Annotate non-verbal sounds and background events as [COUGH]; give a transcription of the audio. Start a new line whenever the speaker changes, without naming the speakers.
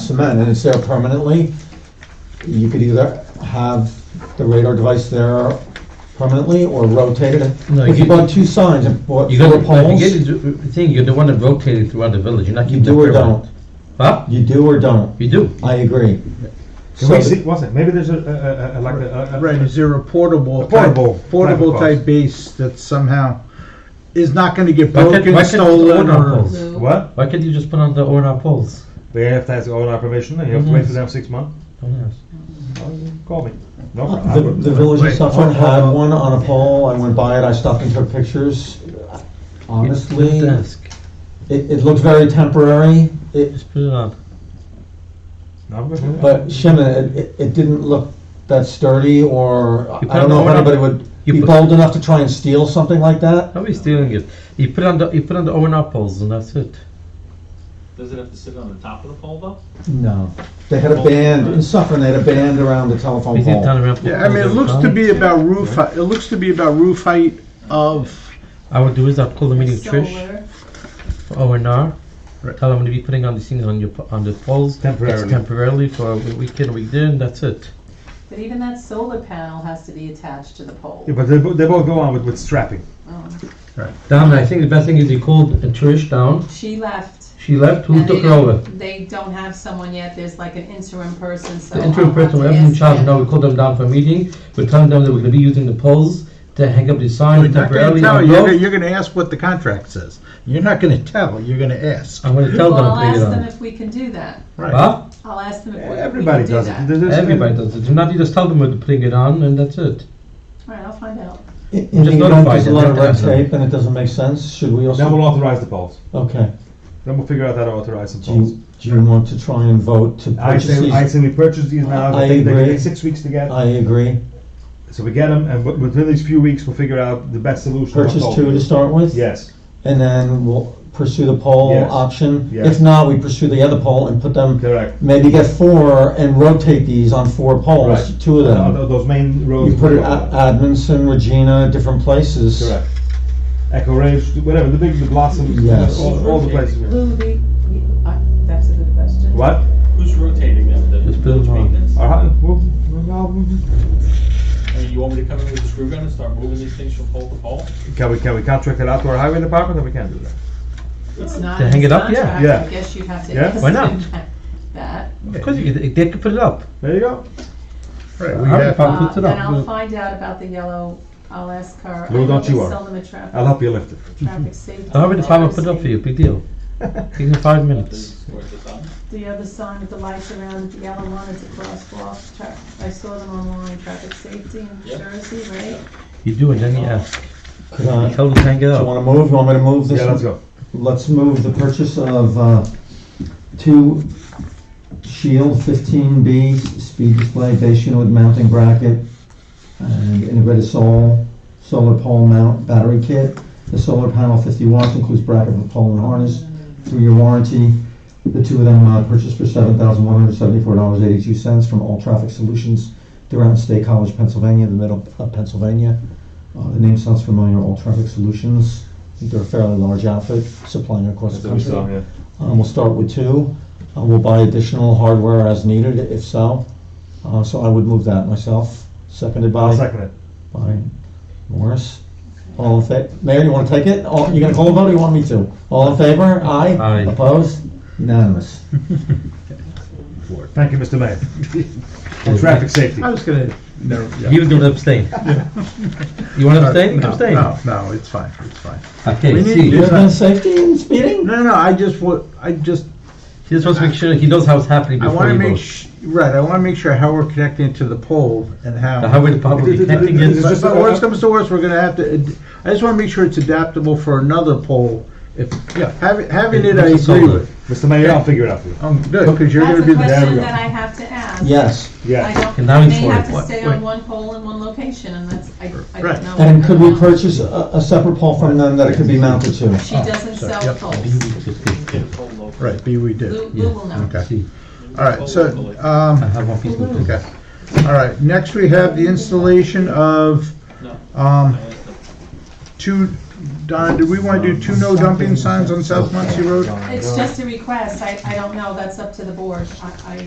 cement and it's there permanently, you could either have the radar device there permanently or rotate it.
No,
If you
you-
bought two signs and bought
You gotta,
four poles,
you get the thing, you're the one that rotated throughout the village, you're not
you
keeping.
do
it
or
permanent.
don't.
Huh?
You do or don't.
You do.
I agree.
Can
So-
we see, wasn't, maybe there's a- a, a, a, like a- a. a-
Right, is there a portable?
A portable
type- Portable
type of
type base that somehow is not gonna get
Why can't- why
broken,
can't
stolen,
the owner
or?
pulls?
What?
Why can't you just put on the O and R poles?
They have to ask all our permission, and you have to wait
Mm-hmm.
for them six months?
Oh, yes.
Call me. No problem. I
uh, The,
will.
Oh, the village of
Wait,
Suffolk
hold- hold
had
on.
one on a pole, I went by it, I stopped and took pictures. Honestly,
Just
it,
ask.
it looked very temporary, it,
Just put it on.
No, I'm good.
but Shimon, it, it didn't look that sturdy or,
You
I don't
put
know if
on the-
anybody would
you
be
put-
bold enough to try and steal something like that.
How are you stealing it? You put on the, you put on the O and R poles and that's it.
Does it have to sit on the top of the pole though?
No. They had a band, in Suffern, they had a band around the telephone
You think
pole.
down around-
Yeah, I mean, it looks to be about roof, hei- it looks to be about roof height of,
I would do is I'd call the meeting Trish,
Solar.
O and R.
Right.
Tell them to be putting on these things on your, po- on the poles.
Temporarily.
It's temporarily for a week in, a week there, and that's it.
But even that solar panel has to be attached to the pole.
Yeah, but they, bo- they both go on with, with strapping.
Oh.
Down, I think the best thing is you called uh, Trish down.
She left.
She left, who
and
took
they
her over?
don't- They don't have someone yet, there's like an interim person, so.
The
I'll
interim
have
person,
to
we have them in
ask
charge
them.
now, we call them down for a meeting, we're telling them that we're gonna be using the poles to hang up the
you're
sign
not gonna
temporarily.
tell,
on
you're, gonna-
both.
you're gonna ask what the contract says. You're not gonna tell, you're gonna ask.
I'm gonna tell
Well,
them
I'll
to take
ask
it
them
on.
if we can do that.
Right.
Huh?
I'll ask them if we- we can do that.
Everybody does it. There's- there's-
Everybody does it, do not you just tell them we're putting it on and that's it.
All right, I'll find out.
In in the
Just
event
notify
there's a
them,
lot
they
of
have
red
to have
tape and it doesn't make sense, should we
Then
also?
we'll authorize the poles.
Okay.
Then we'll figure out how to authorize the
Do
poles.
you, do you want to try and vote to
I
purchase
say, I
these?
say we purchase these now,
I
they take, they
agree.
take six weeks to get.
I agree.
So we get them, and wi- within these few weeks, we'll figure out the best solution. for
Purchase
both.
two to start with?
Yes,
And then we'll pursue the poll
Yes.
option?
Yes.
If not, we pursue the other poll and put them,
correct.
maybe get four and rotate these on four polls,
Right.
two of
Uh,
them.
tho- Those main roads.
You put it
will go
at
on.
Admonson, Regina, different places.
Correct. Echo Range, whatever, the big, the blossoms,
Yes.
all, all the places.
Luby, uh, that's a good question.
What?
Who's rotating them? The
Just put them
village
on.
maintenance?
Our, hu- well, well,
I mean, you want me to come in with a screw gun and start moving these things from pole to pole?
Can we, can we contract it out to our highway department, or we can't do that?
It's not.
To hang it up? Yeah,
contract.
yeah.
I guess you'd have to.
Yeah,
ask
why not?
them That.
Of course you could, they could put it up.
There you go.
Right, we
Our
have-
department puts it
Uh, And
up.
I'll find out about the yellow, I'll ask her.
Lou,
I know
don't
they
you worry.
Sell them a traffic.
I'll help you lift it.
Traffic safety.
The highway department put it up for you, big
[LAUGHS]
deal. Give them five minutes.
Is it worth it done?
The other sign with the lights around, the yellow one, it's a crosswalk, tra- I saw them online, traffic safety in
Yep.
Jersey, right?
You do it, then you ask.
Could I, Uh, do
Tell them to hang it
you
up.
wanna move, you want me to move this?
Yeah, let's go.
Let's move the purchase of, uh, two Shield fifteen B speed display base unit with mounting bracket and integrated sol solar pole mount battery kit. The solar panel fifty watts includes bracket for pole and harness, three-year warranty. The two of them uh, purchased for seven thousand one hundred seventy-four dollars eighty-two cents from All Traffic Solutions throughout State College, Pennsylvania, in the middle of Pennsylvania. Uh, the name sounds familiar, All Traffic Solutions. I think they're a fairly large outfit supplying across the country. Um, We'll start with two. Uh, We'll buy additional hardware as needed, if so. Uh, So I would move that myself, seconded
I'll
by,
second it.
by Morris. All in fa, Mayor, you want to take it? All- You going to call a vote or you want me to? All in favor? Aye?
Aye.
Opposed? Unanimous.
Thank you, Mr. Mayor. And traffic safety.
I was gonna, no, yeah.
He was gonna abstain. You wanna abstain? You can
No,
abstain.
No, no, it's fine, it's fine.
Okay,
We need
see,
to-
You have been safety and speeding?
No, no, I just wa, I just
he just wants to make sure he knows how it's happening
I
before
want to
he
make,
votes.
sh- right, I want to make sure how we're connecting to the pole and how.
The highway department will be connecting
It's
it.
But
just-
but worst comes to worst, we're gonna have to, ad- I just want to make sure it's adaptable for another pole. If, yeah, having, having it, I
It's a
agree
solar.
with.
Mr. Mayor, I'll figure it out for you.
Um, good, because you're
That's
gonna
a
be the.
we
question
go.
that I have to ask.
Yes.
I
Yeah.
don't,
And now
I may
he's for
have
it.
to
What-
stay
wait.
on one pole in one location, and that's, I, I
Right.
don't know.
And could we purchase a a separate pole from them that it could be mounted to?
She
sorry,
doesn't sell
yep.
poles,
Get a pole local.
Right, B we
Lou,
do.
Lou will know.
Okay,
See,
all right, so,
Locally.
I
um,
have one piece of
okay. All right, next we have the installation of,
No.
um, two Donna, do we want to do two no dumping signs on South Muncie Road?
It's just a request, I, I don't know, that's up to the board, I, I